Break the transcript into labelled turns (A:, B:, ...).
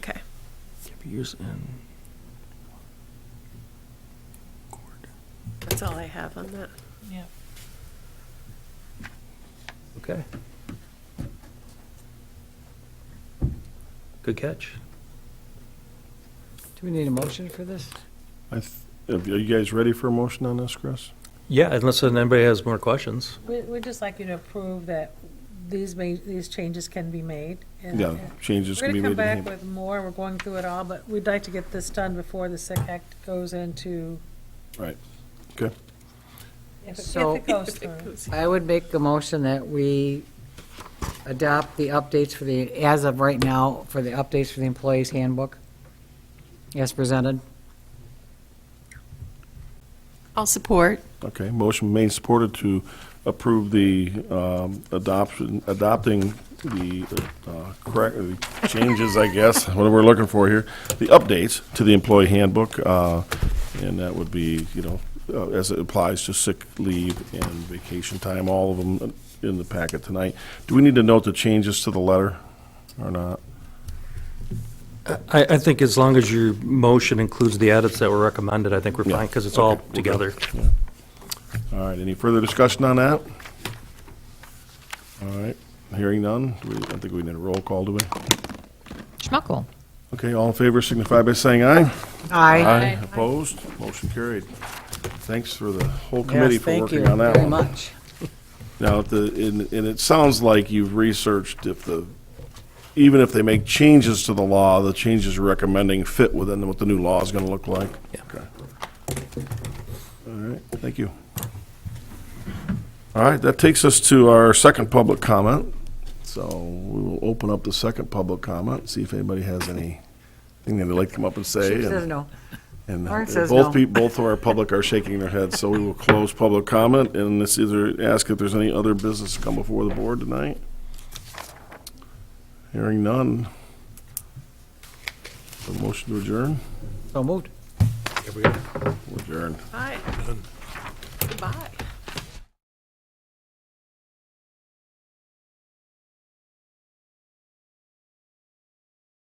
A: Pierce and Gord.
B: That's all I have on that.
C: Yeah.
A: Okay. Good catch.
D: Do we need a motion for this?
E: I th- Are you guys ready for a motion on this, Chris?
A: Yeah, unless anybody has more questions.
C: We, we'd just like you to approve that these ma, these changes can be made. and-
E: Yeah,
C: and
E: changes
C: We're
E: can be
C: gonna come back
E: made. in
C: with more, we're going through it all, but we'd like to get this done before the SIC Act goes into,
E: Right, okay.
C: if it- if
D: So-
C: it goes through.
D: I would make a motion that we adopt the updates for the, as of right now, for the updates for the employees handbook as presented.
F: I'll support.
E: Okay, motion made, supported to approve the um, adoption, adopting the uh, correct, the changes, I guess, what we're looking for here, the updates to the employee handbook, uh, and that would be, you know, uh, as it applies to sick leave and vacation time, all of them in the packet tonight. Do we need to note the changes to the letter or not?
A: I, I think as long as your motion includes the edits that were recommended, I think we're
E: Yeah.
A: fine, because it's all
E: Okay, we're
A: together.
E: good. Yeah. All right, any further discussion on that? All right, hearing none, Do we, I think we need a roll call, do we?
G: Schmuckel.
E: Okay, all in favor signify by saying aye.
D: Aye.
E: Opposed, motion carried. Thanks for the whole committee
D: Yes,
E: for working on
D: Thank
E: that
D: you very
E: one.
D: much.
E: Now, if the, and, and it sounds like you've researched if the, even if they make changes to the law, the changes you're recommending fit within what the new law is gonna look like?
A: Yeah.
E: Okay. All right, thank you. All right, that takes us to our second public comment. So we will open up the second public comment, see if anybody has anything they'd like to come up and say.
D: She
E: and-
D: says no.
E: and
D: Lauren says
E: both
D: no.
E: people, both of our public are shaking their heads, so we will close public comment and this either ask if there's any other business to come before the board tonight. Hearing none. The motion to adjourn,
D: So moved.
E: We're adjourned.
B: Bye. Goodbye.